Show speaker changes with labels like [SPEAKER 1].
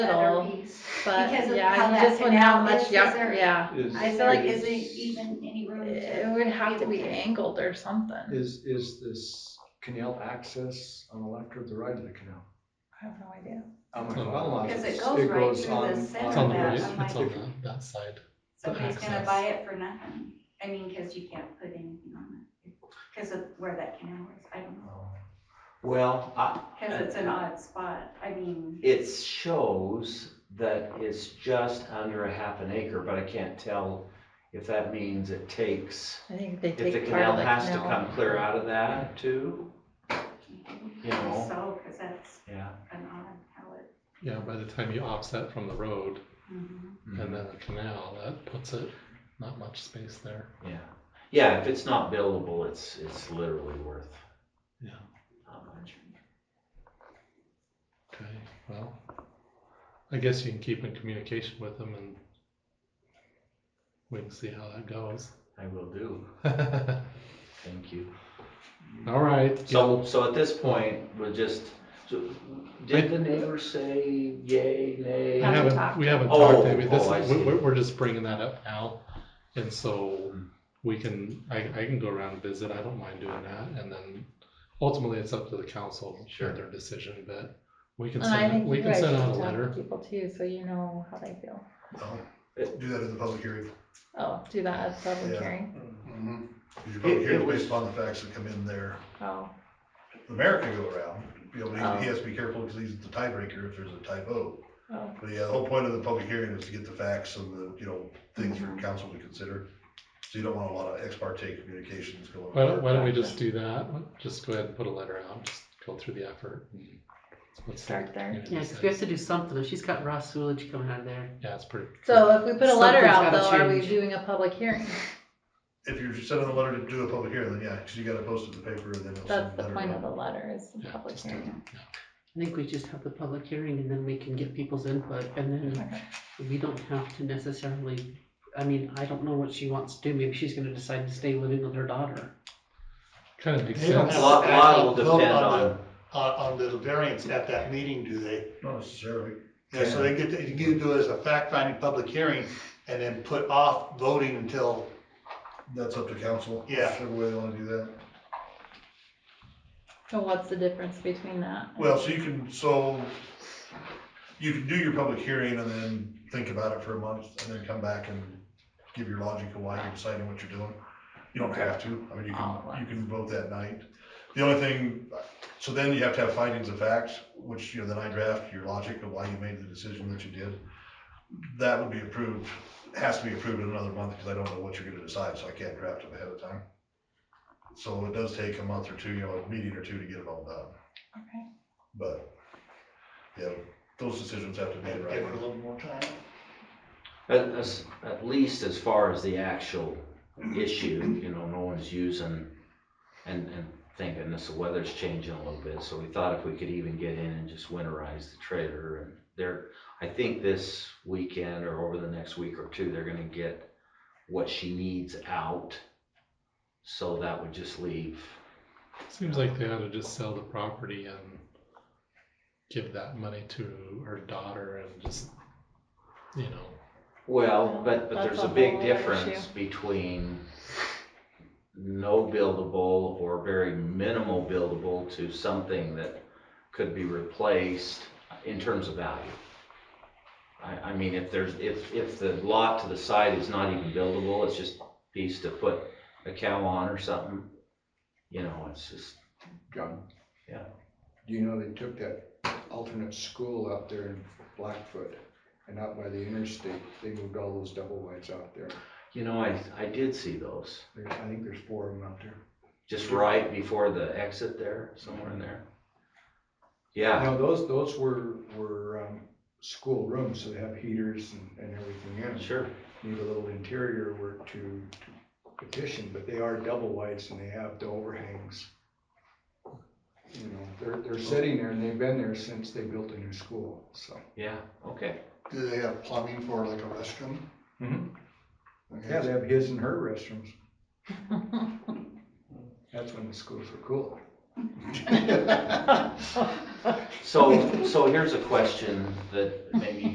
[SPEAKER 1] least, but
[SPEAKER 2] Because of how
[SPEAKER 1] yeah,
[SPEAKER 2] that
[SPEAKER 1] you just wouldn't have
[SPEAKER 2] canal
[SPEAKER 1] much,
[SPEAKER 2] is, is
[SPEAKER 1] yeah,
[SPEAKER 2] there-
[SPEAKER 1] yeah.
[SPEAKER 3] Is-
[SPEAKER 2] I feel like
[SPEAKER 3] is-
[SPEAKER 2] isn't even any room
[SPEAKER 1] It
[SPEAKER 2] to.
[SPEAKER 1] would have to be
[SPEAKER 2] people can-
[SPEAKER 1] angled or something.
[SPEAKER 3] Is, is this canal access on the left or the right of the canal?
[SPEAKER 1] I have no idea.
[SPEAKER 3] I'm
[SPEAKER 4] It's
[SPEAKER 3] not-
[SPEAKER 4] on-
[SPEAKER 3] I'm not-
[SPEAKER 2] Because it
[SPEAKER 3] it's-
[SPEAKER 2] goes right
[SPEAKER 3] goes
[SPEAKER 2] through the
[SPEAKER 3] on-
[SPEAKER 2] center
[SPEAKER 4] It's
[SPEAKER 2] of
[SPEAKER 4] on the
[SPEAKER 2] Yeah,
[SPEAKER 4] right,
[SPEAKER 2] I'm
[SPEAKER 4] it's
[SPEAKER 2] like-
[SPEAKER 4] on that side.
[SPEAKER 2] Somebody's gonna
[SPEAKER 4] access.
[SPEAKER 2] buy it for nothing. I mean, because you can't put anything on it. Because of where that canal is, I don't know.
[SPEAKER 3] Oh.
[SPEAKER 5] Well, I-
[SPEAKER 2] Because it's an odd spot. I mean,
[SPEAKER 5] it shows that it's just under a half an acre, but I can't tell if that means it takes,
[SPEAKER 1] I think they
[SPEAKER 5] if the
[SPEAKER 1] take part
[SPEAKER 5] canal
[SPEAKER 1] of the
[SPEAKER 5] has to
[SPEAKER 1] canal.
[SPEAKER 5] come clear out of that too, you know,
[SPEAKER 2] so, because that's
[SPEAKER 5] yeah.
[SPEAKER 2] an odd how it.
[SPEAKER 4] Yeah, by the time you offset from the road
[SPEAKER 2] mhm.
[SPEAKER 5] Um,
[SPEAKER 4] and then the canal, that puts it, not much space there.
[SPEAKER 5] Yeah, yeah, if it's not buildable, it's, it's literally worth
[SPEAKER 4] Yeah,
[SPEAKER 5] not much.
[SPEAKER 4] okay, well, I guess you can keep in communication with them and we can see how that goes.
[SPEAKER 5] I will do, thank you.
[SPEAKER 4] All right.
[SPEAKER 5] So, so at this point, we'll just, so, did the neighbors say yay,
[SPEAKER 4] We
[SPEAKER 5] nay?
[SPEAKER 1] Haven't
[SPEAKER 4] haven't,
[SPEAKER 1] talked.
[SPEAKER 4] we haven't
[SPEAKER 5] Oh,
[SPEAKER 4] talked, I mean, this,
[SPEAKER 5] oh, I see.
[SPEAKER 4] we're, we're just bringing that up now. And so
[SPEAKER 5] Hmm.
[SPEAKER 4] we can, I, I can go around and visit, I don't mind doing that, and then ultimately it's up to the council for
[SPEAKER 5] Sure.
[SPEAKER 4] their decision, but we can
[SPEAKER 1] And I
[SPEAKER 4] send,
[SPEAKER 1] think
[SPEAKER 4] we
[SPEAKER 1] you
[SPEAKER 4] can
[SPEAKER 1] guys should
[SPEAKER 4] send out a
[SPEAKER 1] talk to
[SPEAKER 4] letter.
[SPEAKER 1] people too, so you know how they feel.
[SPEAKER 6] Do that as a public hearing.
[SPEAKER 1] Oh, do that as public
[SPEAKER 6] Yeah.
[SPEAKER 1] hearing.
[SPEAKER 7] Mm-hmm.
[SPEAKER 6] Because your
[SPEAKER 5] It-
[SPEAKER 6] public
[SPEAKER 5] it
[SPEAKER 6] hearing is
[SPEAKER 5] was-
[SPEAKER 6] based upon the facts that come in there.
[SPEAKER 1] Oh,
[SPEAKER 6] The mayor can go around, you know,
[SPEAKER 1] Oh.
[SPEAKER 6] but he, he has to be careful because he's the tiebreaker if there's a typo.
[SPEAKER 1] oh,
[SPEAKER 6] But yeah, the whole point of the public hearing is to get the facts and the, you know, things for council to consider. So you don't want a lot of ex parte communications going
[SPEAKER 4] Why don't,
[SPEAKER 6] on.
[SPEAKER 4] why don't we just do that, just go ahead and put a letter out, just go through the effort.
[SPEAKER 5] Hmm.
[SPEAKER 4] and let's see what
[SPEAKER 1] start
[SPEAKER 4] the
[SPEAKER 1] there.
[SPEAKER 4] community
[SPEAKER 8] Yeah, because we have
[SPEAKER 4] says.
[SPEAKER 8] to do something. If she's got raw sewage coming out of there,
[SPEAKER 4] Yeah, it's pretty.
[SPEAKER 1] So if we put a letter
[SPEAKER 8] Something's
[SPEAKER 1] out
[SPEAKER 8] gotta
[SPEAKER 1] though, are we
[SPEAKER 8] change.
[SPEAKER 1] doing a public hearing?
[SPEAKER 6] If you're sending a letter to do a public hearing, then yeah, because you gotta post it in the paper and then. it'll
[SPEAKER 1] That's
[SPEAKER 6] send
[SPEAKER 1] the
[SPEAKER 6] letter
[SPEAKER 1] point
[SPEAKER 6] out.
[SPEAKER 1] of the letter is the
[SPEAKER 4] Yeah,
[SPEAKER 1] public
[SPEAKER 4] just do
[SPEAKER 1] hearing.
[SPEAKER 8] I think we just have the public hearing and then we can get people's input and then
[SPEAKER 1] Okay.
[SPEAKER 8] we don't have to necessarily, I mean, I don't know what she wants to do. Maybe she's gonna decide to stay living with her daughter.
[SPEAKER 4] Kind of makes
[SPEAKER 9] They don't
[SPEAKER 4] sense.
[SPEAKER 5] A
[SPEAKER 9] have-
[SPEAKER 5] lot, lot will
[SPEAKER 9] Vote on
[SPEAKER 5] depend on,
[SPEAKER 9] the- On, on the variance at that meeting, do they?
[SPEAKER 6] Not necessarily.
[SPEAKER 9] Yeah, so they get, to- you can do it as a fact-finding public hearing and then put off voting until,
[SPEAKER 6] That's up to council.
[SPEAKER 9] Yeah.
[SPEAKER 6] Whichever way they wanna do that.
[SPEAKER 1] So what's the difference between that? and-
[SPEAKER 6] Well, so you can, so you can do your public hearing and then think about it for a month and then come back and give your logic of why you're deciding what you're doing. You don't have to, I mean, you
[SPEAKER 1] All at
[SPEAKER 6] can, you can vote that night. The only thing, so then you have to have findings of facts, which, you know, then I draft your logic of why you made the decision that you did. That would be approved, has to be approved in another month because I don't know what you're gonna decide, so I can't draft it ahead of time. So it does take a month or two, you know, a meeting or two to get it all done.
[SPEAKER 1] Okay.
[SPEAKER 6] But, yeah, those decisions have to be
[SPEAKER 9] give
[SPEAKER 6] made
[SPEAKER 9] her
[SPEAKER 6] right.
[SPEAKER 9] a little more time.
[SPEAKER 5] at, as- at least as far as the actual issue, you know, no one's using and, and thinking this, the weather's changing a little bit, so we thought if we could even get in and just winterize the trailer and there, I think this weekend or over the next week or two, they're gonna get what she needs out. So that would just leave,
[SPEAKER 4] Seems like they ought to just sell the property and give that money to her daughter and just, you know,
[SPEAKER 5] well, but, but
[SPEAKER 1] That's
[SPEAKER 5] there's
[SPEAKER 1] a
[SPEAKER 5] a big
[SPEAKER 1] whole other
[SPEAKER 5] difference between no buildable or very minimal buildable to something that could be replaced in terms of value. I, I mean, if there's, if, if the lot to the side is not even buildable, it's just a piece to put a cow on or something, you know, it's just,
[SPEAKER 7] John?
[SPEAKER 5] Yeah.
[SPEAKER 7] Do you know they took that alternate school out there in Blackfoot and out by the interstate, they moved all those double whites out there.
[SPEAKER 5] you know, I, I did see those.
[SPEAKER 7] There's, I think there's four of them out there.
[SPEAKER 5] Just right before the exit there, somewhere in there. Yeah,
[SPEAKER 7] No, those, those were, were, um, school rooms, so they have heaters and, and everything in.
[SPEAKER 5] sure.
[SPEAKER 7] Need a little interior work to to petition, but they are double whites and they have the overhangs. You know, they're, they're sitting there and they've been there since they built the new school, so.
[SPEAKER 5] Yeah, okay.
[SPEAKER 6] Do they have plumbing for like a restroom?
[SPEAKER 7] Yeah, they have his and her restrooms. That's when the schools were cool.
[SPEAKER 5] So, so here's a question that maybe